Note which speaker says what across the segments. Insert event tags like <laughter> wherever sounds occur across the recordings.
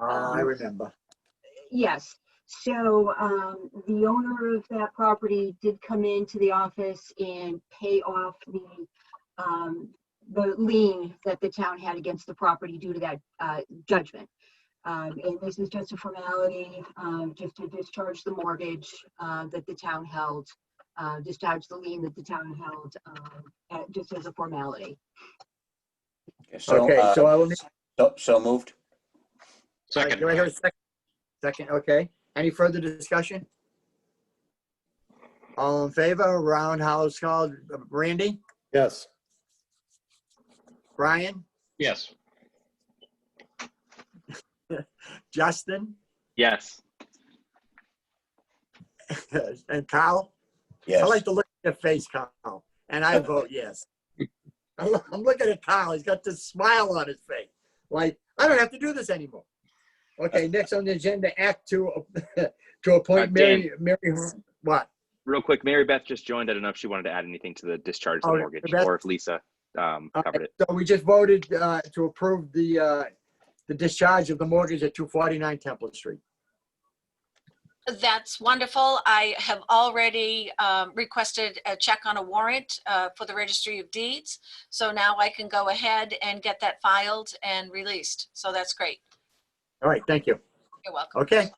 Speaker 1: Ah, I remember.
Speaker 2: Yes, so um, the owner of that property did come into the office and pay off the, um, the lien that the town had against the property due to that uh, judgment. Um, And this is just a formality, um, just to discharge the mortgage uh, that the town held, uh, discharge the lien that the town held, um, uh, just as a formality.
Speaker 3: Okay, so,
Speaker 1: Okay,
Speaker 3: uh,
Speaker 1: so I will need,
Speaker 3: so- so moved.
Speaker 1: all right,
Speaker 4: Second.
Speaker 1: do I hear a second? Second, okay. Any further discussion? All in favor, roundhouse call, uh, Randy,
Speaker 5: Yes.
Speaker 1: Brian,
Speaker 4: Yes.
Speaker 1: Justin,
Speaker 4: Yes.
Speaker 1: and Kyle? I
Speaker 3: Yes.
Speaker 1: like to look at your face, Kyle, and
Speaker 3: <laughs>
Speaker 1: I vote yes. I'm loo- I'm looking at Kyle, he's got this smile on his face, like, I don't have to do this anymore. Okay, next on the agenda, act to, <laughs> to appoint
Speaker 6: Uh, Dan.
Speaker 1: Mary, Mary, Har- what?
Speaker 6: Real quick, Mary Beth just joined. I don't know if she wanted to add anything to the discharge of
Speaker 1: Oh,
Speaker 6: the
Speaker 1: yeah,
Speaker 6: mortgage
Speaker 1: Beth.
Speaker 6: or if Lisa um,
Speaker 1: All
Speaker 6: covered it.
Speaker 1: So we just voted uh, to approve the, uh, the discharge of the mortgage at 249 Temple Street.
Speaker 7: That's wonderful. I have already um, requested a check on a warrant uh, for the Registry of Deeds. So now I can go ahead and get that filed and released. So that's great.
Speaker 1: All right, thank you.
Speaker 7: You're welcome.
Speaker 1: Okay.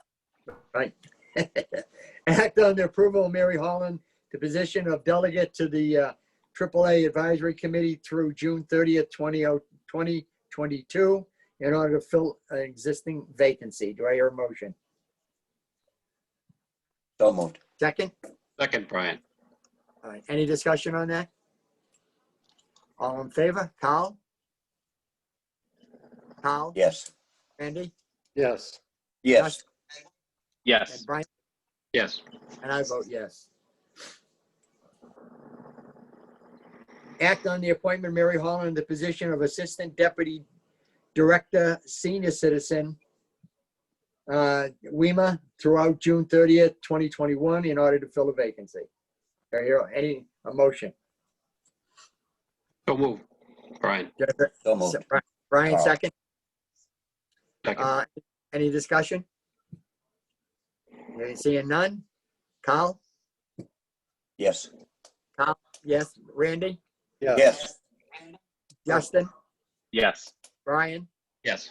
Speaker 1: All Right. <laughs> Act on the approval of Mary Holland, the position of delegate to the uh, AAA Advisory Committee through June 30th, 20 2022, in order to fill an existing vacancy. Do I hear a motion?
Speaker 3: So moved.
Speaker 1: Second?
Speaker 4: Second, Brian.
Speaker 1: All right, any discussion on that? All in favor? Kyle? Kyle?
Speaker 3: Yes.
Speaker 1: Randy?
Speaker 5: Yes.
Speaker 3: Yes.
Speaker 6: Yes.
Speaker 1: And Brian?
Speaker 4: Yes.
Speaker 1: And I vote yes. Act on the appointment of Mary Holland to the position of Assistant Deputy Director, Senior Citizen, uh, WEMA throughout June 30th, 2021, in order to fill a vacancy. Are here any, a motion?
Speaker 4: So move. Brian.
Speaker 3: So moved.
Speaker 1: Brian, second.
Speaker 4: Second.
Speaker 1: Uh, Any discussion? Okay, Seeing none? Kyle?
Speaker 3: Yes.
Speaker 1: Yes. Randy?
Speaker 3: Yes.
Speaker 1: Justin?
Speaker 6: Yes.
Speaker 1: Brian?
Speaker 4: Yes.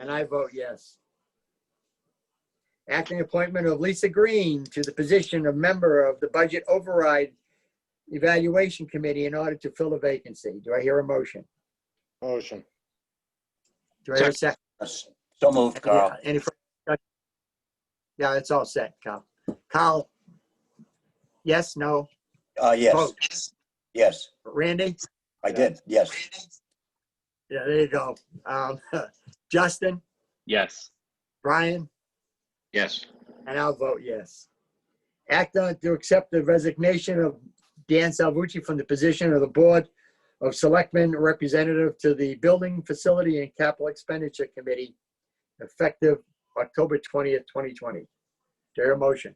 Speaker 1: And I vote yes. Acting appointment of Lisa Green to the position of member of the Budget Override Evaluation Committee in order to fill a vacancy. Do I hear a motion?
Speaker 5: Motion.
Speaker 1: Do I hear a second?
Speaker 3: Yes. So moved, Carl.
Speaker 1: Any further discussion? Yeah, it's all set, Kyle. Kyle? Yes, no?
Speaker 3: Uh, yes.
Speaker 1: Vote.
Speaker 3: Yes.
Speaker 1: Randy?
Speaker 3: I did. Yes.
Speaker 1: Yeah, there you go. Um, <laughs> Justin?
Speaker 6: Yes.
Speaker 1: Brian?
Speaker 4: Yes.
Speaker 1: And I'll vote yes. Act on to accept the resignation of Dan Salvucci from the position of the Board of Selectmen Representative to the Building Facility and Capital Expenditure Committee effective October 20th, 2020. There a motion?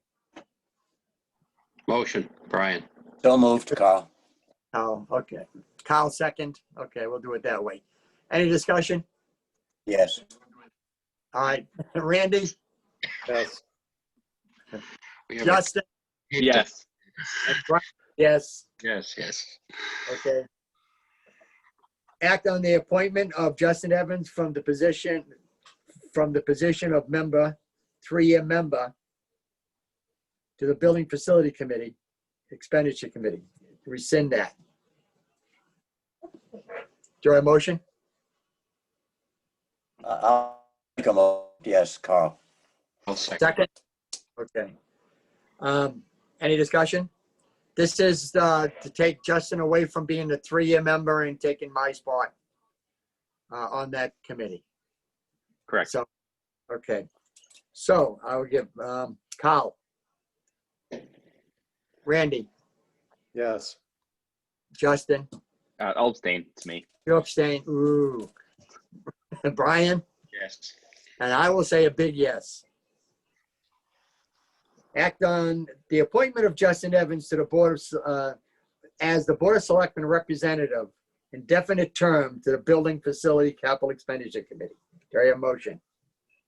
Speaker 4: Motion, Brian.
Speaker 3: So moved, Carl.
Speaker 1: Oh, okay. Kyle second. Okay, we'll do it that way. Any discussion?
Speaker 3: Yes.
Speaker 1: All right, Randy,
Speaker 5: Yes.
Speaker 4: We have a-
Speaker 1: Justin,
Speaker 6: Yes.
Speaker 1: and Brian. Yes.
Speaker 4: Yes, yes.
Speaker 1: Okay. Act on the appointment of Justin Evans from the position, from the position of member, three-year member to the Building Facility Committee, Expenditure Committee. Rescind that. Do I motion?
Speaker 3: Uh, I'll make a mo, yes, Carl.
Speaker 4: I'll second.
Speaker 1: Second? Okay. Um, Any discussion? This is uh, to take Justin away from being the three-year member and taking my spot uh, on that committee.
Speaker 6: Correct.
Speaker 1: So, okay. So I will give um, Kyle. Randy,
Speaker 5: Yes.
Speaker 1: Justin,
Speaker 6: Uh, I'll abstain. It's me.
Speaker 1: you abstain, ooh. <laughs> And Brian,
Speaker 4: Yes.
Speaker 1: and I will say a big yes. Act on the appointment of Justin Evans to the Board of, uh, as the Board of Selectmen Representative, indefinite term to the Building Facility Capital Expenditure Committee. Carry a motion.